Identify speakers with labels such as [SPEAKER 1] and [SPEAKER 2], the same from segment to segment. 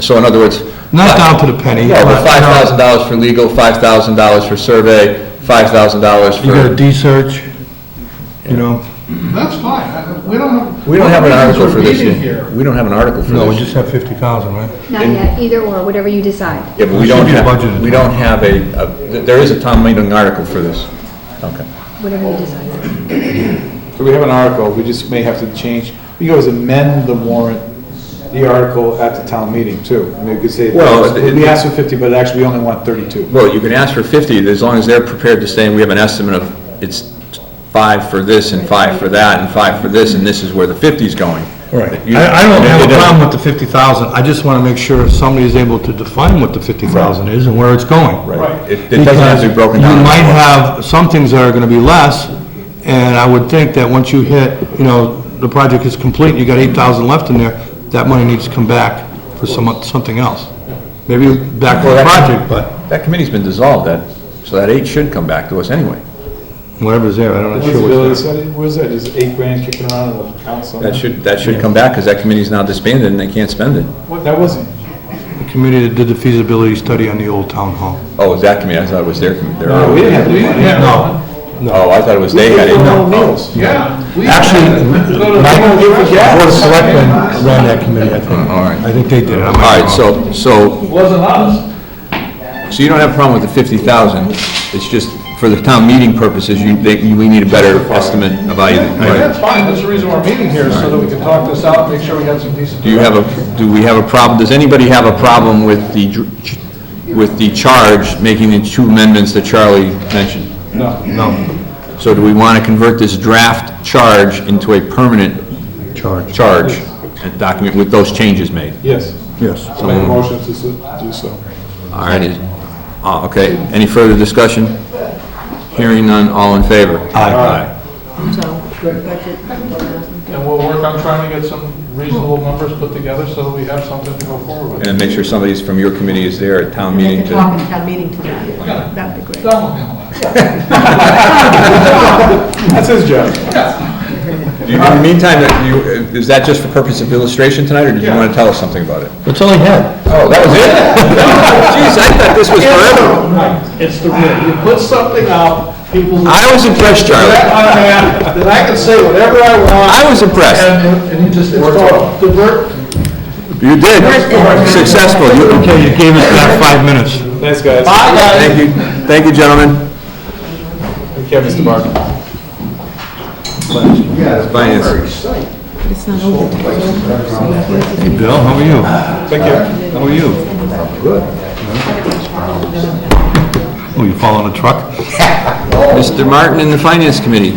[SPEAKER 1] So in other words.
[SPEAKER 2] Not down to the penny,
[SPEAKER 1] Yeah,
[SPEAKER 2] but,
[SPEAKER 1] but
[SPEAKER 2] you know-
[SPEAKER 1] five thousand dollars for legal, five thousand dollars for survey, five thousand dollars for.
[SPEAKER 2] You got a D-search, you know?
[SPEAKER 3] That's fine, I- we don't have.
[SPEAKER 1] We don't have an article for this
[SPEAKER 3] meeting
[SPEAKER 1] year. We don't have an article for
[SPEAKER 2] No, we
[SPEAKER 1] this
[SPEAKER 2] just
[SPEAKER 1] year.
[SPEAKER 2] have 50,000, right?
[SPEAKER 4] Not yet, either or, whatever you decide.
[SPEAKER 1] Yeah, but we
[SPEAKER 2] It should
[SPEAKER 1] don't
[SPEAKER 2] be
[SPEAKER 1] have,
[SPEAKER 2] budgeted.
[SPEAKER 1] we don't have a, a- there is a town meeting article for this. Okay.
[SPEAKER 4] Whatever you decide.
[SPEAKER 5] So we have an article, we just may have to change, we could always amend the warrant, the article at the town meeting too. I mean, we could say,
[SPEAKER 1] Well, it-
[SPEAKER 5] we asked for fifty, but actually we only want thirty-two.
[SPEAKER 1] Well, you can ask for fifty, as long as they're prepared to say, we have an estimate of, it's five for this and five for that and five for this, and this is where the fifty's going. You-
[SPEAKER 2] I, I don't have
[SPEAKER 1] It
[SPEAKER 2] a
[SPEAKER 1] doesn't-
[SPEAKER 2] problem with the 50,000, I just want to make sure somebody is able to define what the 50,000 is and where it's going.
[SPEAKER 1] Right. It it doesn't have to be broken down.
[SPEAKER 2] You might have some things that are going to be less, and I would think that once you hit, you know, the project is complete, you got 8,000 left in there, that money needs to come back for some, something else. Maybe back to the
[SPEAKER 1] Well, that's-
[SPEAKER 2] project, but
[SPEAKER 1] That committee's been dissolved, that, so that eight should come back to us anyway.
[SPEAKER 2] whatever's there, I don't know.
[SPEAKER 5] Feasibility study, where's that, is eight grand kicking around in the council?
[SPEAKER 1] That should, that should come back, because that committee's now disbanded and they can't spend it.
[SPEAKER 5] What, that wasn't,
[SPEAKER 2] The committee that did the feasibility study on the old town hall.
[SPEAKER 1] Oh, is that committee, I thought it was their committee.
[SPEAKER 5] no, we didn't have the money.
[SPEAKER 1] Oh, I thought it was they had it.
[SPEAKER 5] No, meals.
[SPEAKER 3] Yeah. we-
[SPEAKER 2] Actually,
[SPEAKER 3] Go to-
[SPEAKER 2] Michael,
[SPEAKER 3] go to-
[SPEAKER 2] the Board of Selectmen ran that committee, I think.
[SPEAKER 1] Oh, All right.
[SPEAKER 2] I think they did it. I might
[SPEAKER 1] All
[SPEAKER 2] be
[SPEAKER 1] right, so,
[SPEAKER 2] wrong.
[SPEAKER 1] so,
[SPEAKER 3] Wasn't us.
[SPEAKER 1] so you don't have a problem with the fifty thousand, it's just for the town meeting purposes, you, they, you- we need a better estimate of value.
[SPEAKER 3] That's fine, that's the reason we're meeting here, so that we can talk this out, make sure we got some decent.
[SPEAKER 1] Do you have a, do we have a problem, does anybody have a problem with the, dr- with the charge making the two amendments that Charlie mentioned?
[SPEAKER 2] No,
[SPEAKER 1] So do we want to convert this draft charge into a permanent
[SPEAKER 2] charge.
[SPEAKER 1] charge and document with those changes made?
[SPEAKER 5] Yes,
[SPEAKER 2] Yes.
[SPEAKER 5] I made a motion to so- do so.
[SPEAKER 1] All right, is- ah, okay, any further discussion? Hearing none, all in favor? Aye.
[SPEAKER 3] And we'll work on trying to get some reasonable numbers put together, so that we have something to go forward with.
[SPEAKER 1] And make sure somebody from your committee is there at town meeting
[SPEAKER 6] They can talk
[SPEAKER 1] to,
[SPEAKER 6] in town meeting tonight. That'd be great.
[SPEAKER 3] Done with all that.
[SPEAKER 5] That's his job.
[SPEAKER 1] Do you- in the meantime, that you- is that just for purpose of illustration tonight, or did you want to tell us something about it?
[SPEAKER 2] That's all he had.
[SPEAKER 1] Oh, that was it? Jeez, I thought this was forever.
[SPEAKER 3] It's the, you put something out, people.
[SPEAKER 1] I was impressed, Charlie,
[SPEAKER 3] That I can say whatever I want,
[SPEAKER 1] I was impressed.
[SPEAKER 3] and, and you just, it's called divert
[SPEAKER 1] You did, successful, you,
[SPEAKER 2] Okay, you gave us back five minutes.
[SPEAKER 5] Thanks, guys.
[SPEAKER 1] Thank you, thank you, gentlemen.
[SPEAKER 5] Take care, Mr. Barton.
[SPEAKER 1] Finance.
[SPEAKER 6] It's not over.
[SPEAKER 2] Hey, Bill, how are you?
[SPEAKER 5] Take care.
[SPEAKER 2] How are you? Good. Oh, you following a truck?
[SPEAKER 1] Mr. Martin and the Finance Committee.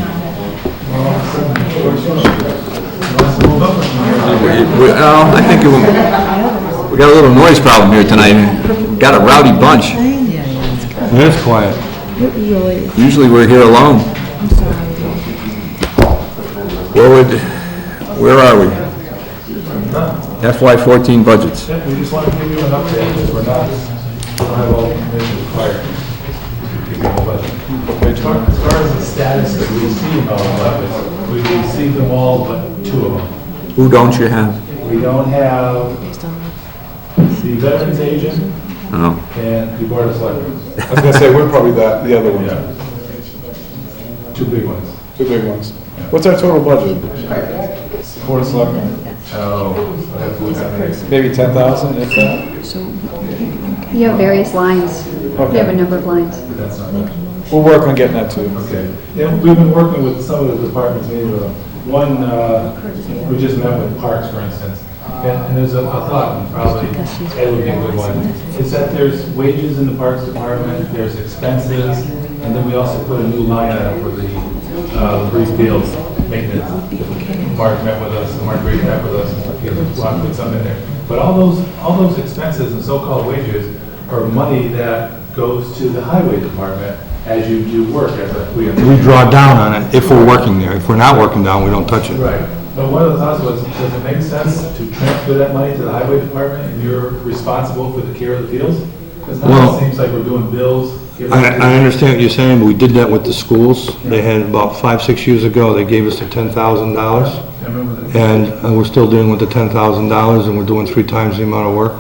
[SPEAKER 1] We- we- oh, I think it wa- we got a little noise problem here tonight. Got a rowdy bunch.
[SPEAKER 2] It is quiet.
[SPEAKER 1] Usually we're here alone. Where would, where are we? FY14 budgets.
[SPEAKER 3] We just want to give you an update, because we're not, we don't have all the information required. But As far as far as the status that we see about weapons, we received them all but two of them.
[SPEAKER 1] Who don't you have?
[SPEAKER 3] We don't have the veterans agent
[SPEAKER 1] Oh,
[SPEAKER 3] and the board of selectmen,
[SPEAKER 5] I was gonna say, we're probably the, the other ones.
[SPEAKER 3] two big ones.
[SPEAKER 5] Two big ones. What's our total budget? Board of Selectmen,
[SPEAKER 3] Oh, I have to look at it.
[SPEAKER 5] maybe ten thousand, if that?
[SPEAKER 4] You have various lines. You have a number of lines.
[SPEAKER 3] That's not bad.
[SPEAKER 5] We'll work on getting that to you.
[SPEAKER 3] Okay. Yeah, we've been working with some of the departments, maybe uh, one, uh, we just met with Parks, for instance. And and there's a a thought, and probably Ed would be a good one, is that there's wages in the Parks Department, there's expenses, and then we also put a new line item for the uh, Bruce Beals maintenance. Mark met with us, Mark Reed met with us, he was wanting to put something there. But all those, all those expenses and so-called wages are money that goes to the highway department as you do work, as a- we.
[SPEAKER 2] We draw down on it if we're working there. If we're not working down, we don't touch it.
[SPEAKER 3] Right, but one of the thoughts was, does it make sense to transfer that money to the highway department and you're responsible for the care of the fields? Because now
[SPEAKER 2] Well-
[SPEAKER 3] it seems like we're doing bills. giving-
[SPEAKER 2] I, I understand what you're saying, but we did that with the schools. They had about five, six years ago, they gave us the ten thousand dollars.
[SPEAKER 3] I remember that.
[SPEAKER 2] And uh, we're still dealing with the ten thousand dollars and we're doing three times the amount of work.